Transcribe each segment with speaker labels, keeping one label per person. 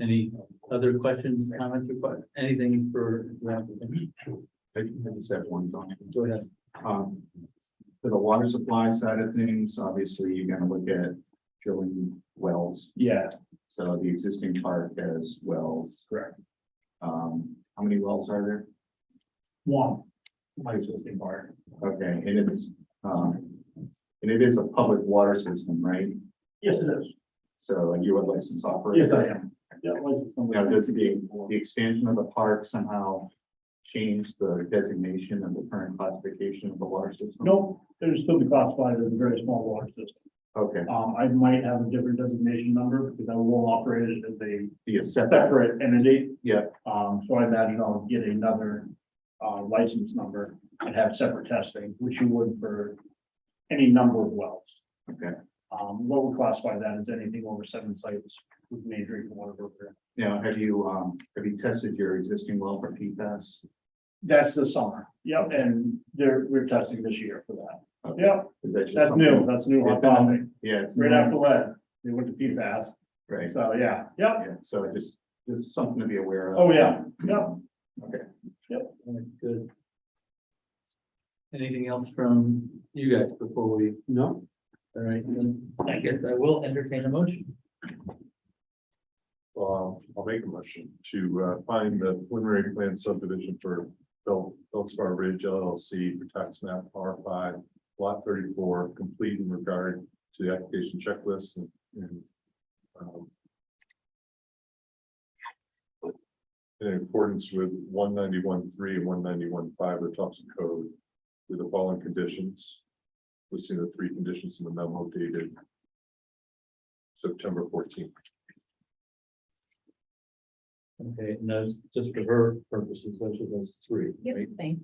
Speaker 1: Any other questions, comments, or que- anything for? the applicant?
Speaker 2: I I just have one thought.
Speaker 1: Go ahead.
Speaker 2: Um, For the water supply side of things, obviously you're gonna look at drilling wells.
Speaker 1: Yeah,
Speaker 2: So the existing park has wells.
Speaker 1: Correct.
Speaker 2: Um, how many wells are there?
Speaker 1: one. My existing part.
Speaker 2: Okay, and it's, um, and it is a public water system, right?
Speaker 1: Yes, it is.
Speaker 2: So you are licensed operator?
Speaker 1: am. Yeah,
Speaker 2: Now, does the, the expansion of the park somehow change the designation of the current classification of the water system?
Speaker 3: Nope, they're still be classified as a very small water system.
Speaker 2: Okay,
Speaker 3: Um, I might have a different designation number because I will operate it as a
Speaker 2: the setback,
Speaker 3: separate entity.
Speaker 2: yeah,
Speaker 3: Um, so I imagine I'll get another, uh, license number and have separate testing, which you would for any number of wells.
Speaker 2: okay.
Speaker 3: Um, what would classify that as anything over seven sites with major drinking water program.
Speaker 2: Now, have you, um, have you tested your existing well for PFAS?
Speaker 3: That's the summer. Yep, and they're, we're testing this year for that.
Speaker 2: Okay.
Speaker 3: Yep,
Speaker 2: Is that just
Speaker 3: that's new,
Speaker 2: something-
Speaker 3: that's new.
Speaker 2: Yeah.
Speaker 3: hot topic.
Speaker 2: Yeah, it's.
Speaker 3: Right
Speaker 2: new,
Speaker 3: after lead, they went to PFAS.
Speaker 2: Right,
Speaker 3: So, yeah, yep,
Speaker 2: yeah, so it just, just something to be aware of.
Speaker 3: Oh, yeah. yep.
Speaker 1: Good. Anything else from you guys before we? No. All right, then I guess I will entertain a motion.
Speaker 4: Uh, I'll make a motion to uh, find the preliminary plan subdivision for Bel- Belspar Ridge LLC for tax map R five, lot thirty-four, complete in regard to the application checklist and- and um, in accordance with one ninety-one three and one ninety-one five of the Thompson Code with the following conditions. Listing the three conditions in the memo dated September fourteenth.
Speaker 1: Okay, and those, just for her purposes, those are those three, right?
Speaker 5: Thank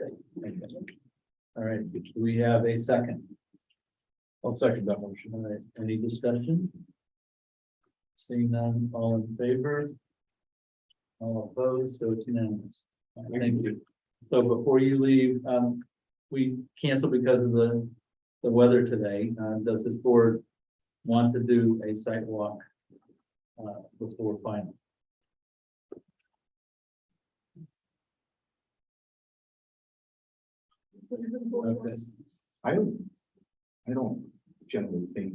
Speaker 1: Thank you. All right, do we have a second? I'll second that motion. All right, any discussion? Seeing none, all in favor? All opposed, so it's unanimous. All right, Thank you. So before you leave, um, we canceled because of the, the weather today. Uh, does this board want to do a site walk? Uh, before final? Okay.
Speaker 2: I don't, I don't generally think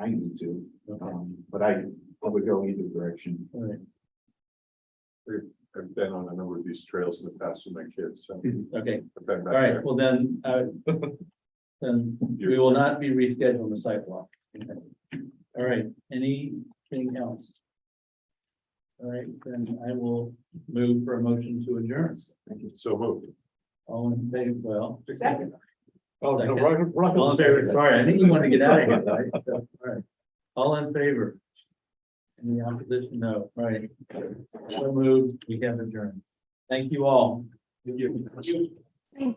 Speaker 2: I need to,
Speaker 1: Okay,
Speaker 2: um, but I, I would go either direction.
Speaker 1: all right.
Speaker 4: I've been on a number of these trails in the past with my kids, so.
Speaker 1: Okay,
Speaker 4: I've been
Speaker 1: All
Speaker 4: back
Speaker 1: right,
Speaker 4: there.
Speaker 1: well then, uh, then we will not be rescheduling the sidewalk. All right, anything else? All right, then I will move for a motion to adjourn.
Speaker 4: So moved.
Speaker 1: All in favor, well.
Speaker 5: Second.
Speaker 4: Oh,
Speaker 1: no, All
Speaker 4: right.
Speaker 1: in favor, sorry, I think you want to get out of here, right? So, all right. All in favor? Any opposition? No, all right. So moved, we have adjourned. Thank you all. Thank you.
Speaker 5: you.